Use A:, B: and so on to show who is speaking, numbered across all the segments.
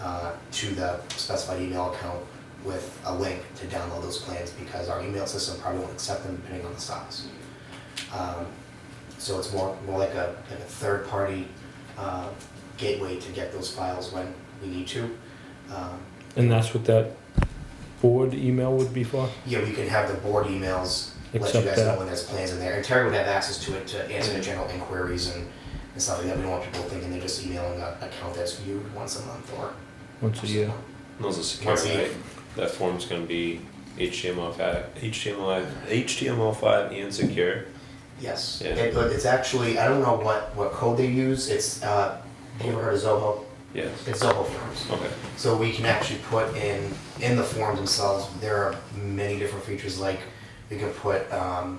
A: uh, to the specified email account with a link to download those plans because our email system probably won't accept them depending on the size. Um, So it's more, more like a, like a third-party uh, gateway to get those files when we need to. Um,
B: And that's what that board email would be for?
A: Yeah, we can have the board emails, let you
B: Accept
A: guys know
B: that.
A: when there's plans in there, and Terry would have access to it to answer the general inquiries and, and stuff like that, we don't want people thinking they're just emailing an account that's viewed once a month or.
B: Once a year?
C: Those are secure,
A: Once a year.
C: right? That form's gonna be HTML five, HTML, HTML five and secure.
A: Yes,
C: Yeah.
A: It- but it's actually, I don't know what, what code they use, it's, uh, have you ever heard of Zoho?
C: Yes.
A: It's Zoho Forms.
C: Okay.
A: So we can actually put in, in the forms themselves, there are many different features, like we can put um,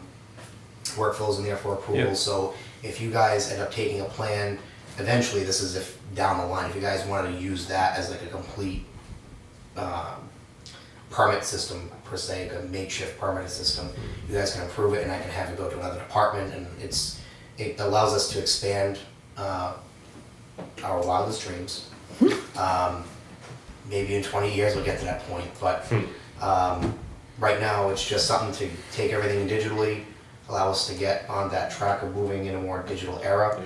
A: workflows in there for approval.
C: Yeah.
A: So if you guys end up taking a plan, eventually, this is if, down the line, if you guys wanted to use that as like a complete um, permit system per se, like a makeshift permit system, you guys can approve it and I can have it go to another department and it's, it allows us to expand uh, our wildest dreams. Um, maybe in 20 years we'll get to that point. But um, right now, it's just something to take everything digitally, allow us to get on that track of moving in a more digital era,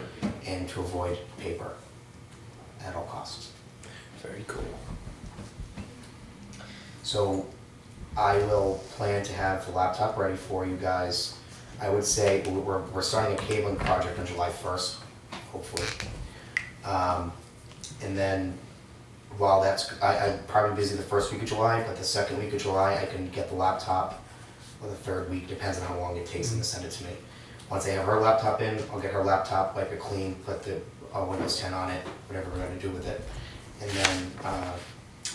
A: and to avoid paper at all costs.
C: Very cool.
A: So I will plan to have the laptop ready for you guys. I would say we- we're, we're starting a cabling project on July first, hopefully. Um, and then while that's, I, I'm probably busy the first week of July, but the second week of July, I can get the laptop or the third week, depends on how long it takes them to send it to me. Once I have her laptop in, I'll get her laptop, wipe it clean, put the uh, Windows 10 on it, whatever we're gonna do with it. And then uh,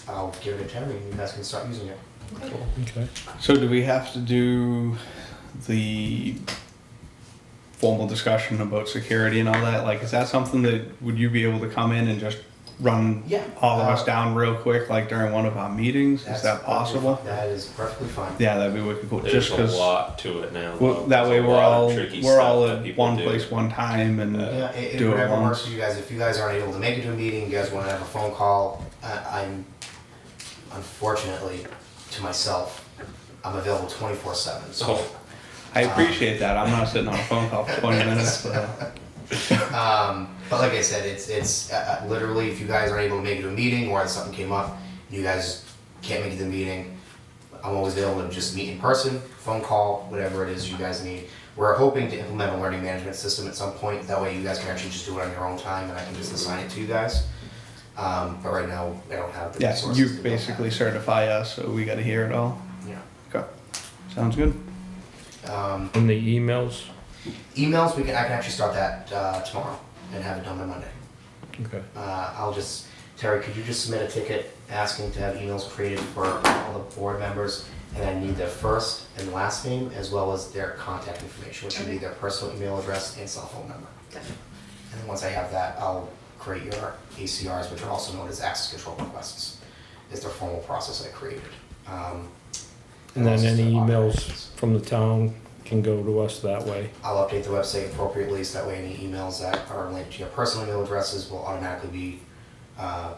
A: I'll give it to Terry and you guys can start using it.
B: Okay.
D: So do we have to do the formal discussion about security and all that? Like, is that something that, would you be able to come in and just run
A: Yeah.
D: all of us
A: Uh,
D: down real quick, like during one of our meetings?
A: That's
D: Is that
A: perfectly-
D: possible?
A: That is perfectly fine.
D: Yeah, that'd be wicked cool,
C: There's
D: just
C: a
D: because,
C: lot to it now. though.
D: that way
C: There's a
D: we're
C: lot of
D: all,
C: tricky
D: we're
C: stuff
D: all
C: that
D: at
C: people
D: one
C: do.
D: place, one time, and,
C: Yeah.
A: Yeah, it, it
D: Do it
A: whatever
D: once.
A: works for you guys. If you guys aren't able to make it to a meeting, you guys want to have a phone call, uh, I'm unfortunately to myself, I'm available 24 7. So
D: Oh.
C: So,
D: I appreciate that, I'm not sitting on a phone call for twenty minutes, uh, so.
A: Um, but like I said, it's it's uh, uh, literally if you guys aren't able to make it to a meeting or something came up, you guys can't make it to the meeting. I'm always available to just meet in person, phone call, whatever it is you guys need. We're hoping to implement a learning management system at some point. That way, you guys can actually just do it on your own time, and I can just assign it to you guys. Um, but right now, I don't have the
D: Yeah,
A: resources.
D: you
A: to build that.
D: basically certify us, so we gotta hear it all.
A: yeah.
D: Okay, sounds good.
A: Um,
B: And the emails?
A: emails, we can I can actually start that uh, tomorrow and have it done by Monday.
B: Okay.
A: Uh, I'll just, Terry, could you just submit a ticket asking to have emails created for all the board members? And I need their first and last name, as well as their contact information, which would be their personal email address and cell phone number. And then once I have that, I'll create your ACRs, which are also known as access control requests, is their formal process I created. Um,
B: And then
A: also
B: any
A: the
B: emails
A: automations.
B: from the town can go to us that way.
A: I'll update the website appropriately, so that way any emails that are linked to your personal email addresses will automatically be, uh,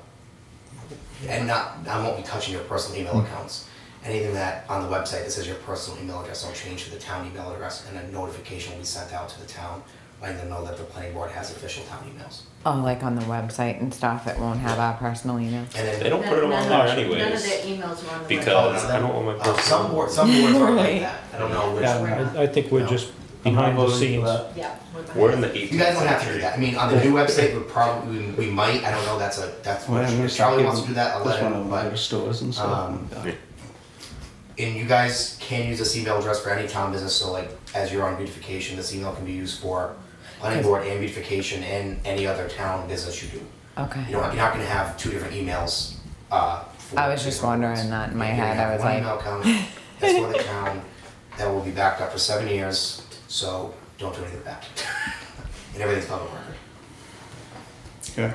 A: and not, I won't be touching your personal email
D: Hmm.
A: accounts. Anything that on the website that says your personal email address will change to the town email address, and a notification will be sent out to the town, letting them know that the planning board has official town emails.
E: Oh, like on the website and stuff, it won't have our personal email.
A: And then.
C: they don't put it
F: None-
C: on
F: none
C: there
F: of- None of their
C: anyways.
F: emails are on the.
A: Oh,
C: Because
A: no,
C: I don't want
A: uh,
C: my
A: Some
C: personal-
A: board, some boards are like
E: Right.
A: that, I don't know which.
D: Yeah.
B: I, I think we're just
D: I'm not
B: behind the
D: voting for
B: scenes.
D: that.
F: website. Yeah. we're
C: We're in
F: behind.
C: the eighteenth
A: You guys don't have to do that. I mean, on the new website, we probably, we- we might, I don't know, that's a, that's,
D: Well, I'm gonna
A: if Charlie
D: give
A: wants to do that, I'll
D: That's
A: let
D: one
A: him,
D: of the
A: but.
D: stores and stuff.
A: um, And you guys can use this email address for any town business, so like, as you're on beautification, this email can be used for planning board and beautification and any other town business you do. You
E: Okay.
A: don't, you're not gonna have two different emails, uh. for
E: I was just
A: different
E: wondering
A: ones.
E: that in my
A: You're gonna
E: head, I
A: have
E: was
A: one
E: like-
A: email account that's for the town, that will be backed up for seven years, so don't do anything with that. And everything's public record.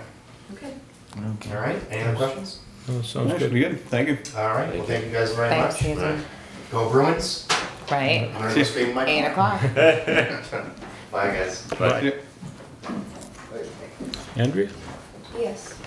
D: Okay.
F: Okay.
A: All right, any other questions?
B: Oh, sounds
D: That
B: good.
D: should be good. Thank you.
A: All right, well, thank you guys very
E: Thanks,
A: much.
E: Susan.
A: Go Bruins.
E: Right?
A: I'm gonna go scream my.
E: Eight o'clock.
A: Bye, guys.
C: Right.
D: Yep.
B: Andrea?
F: Yes.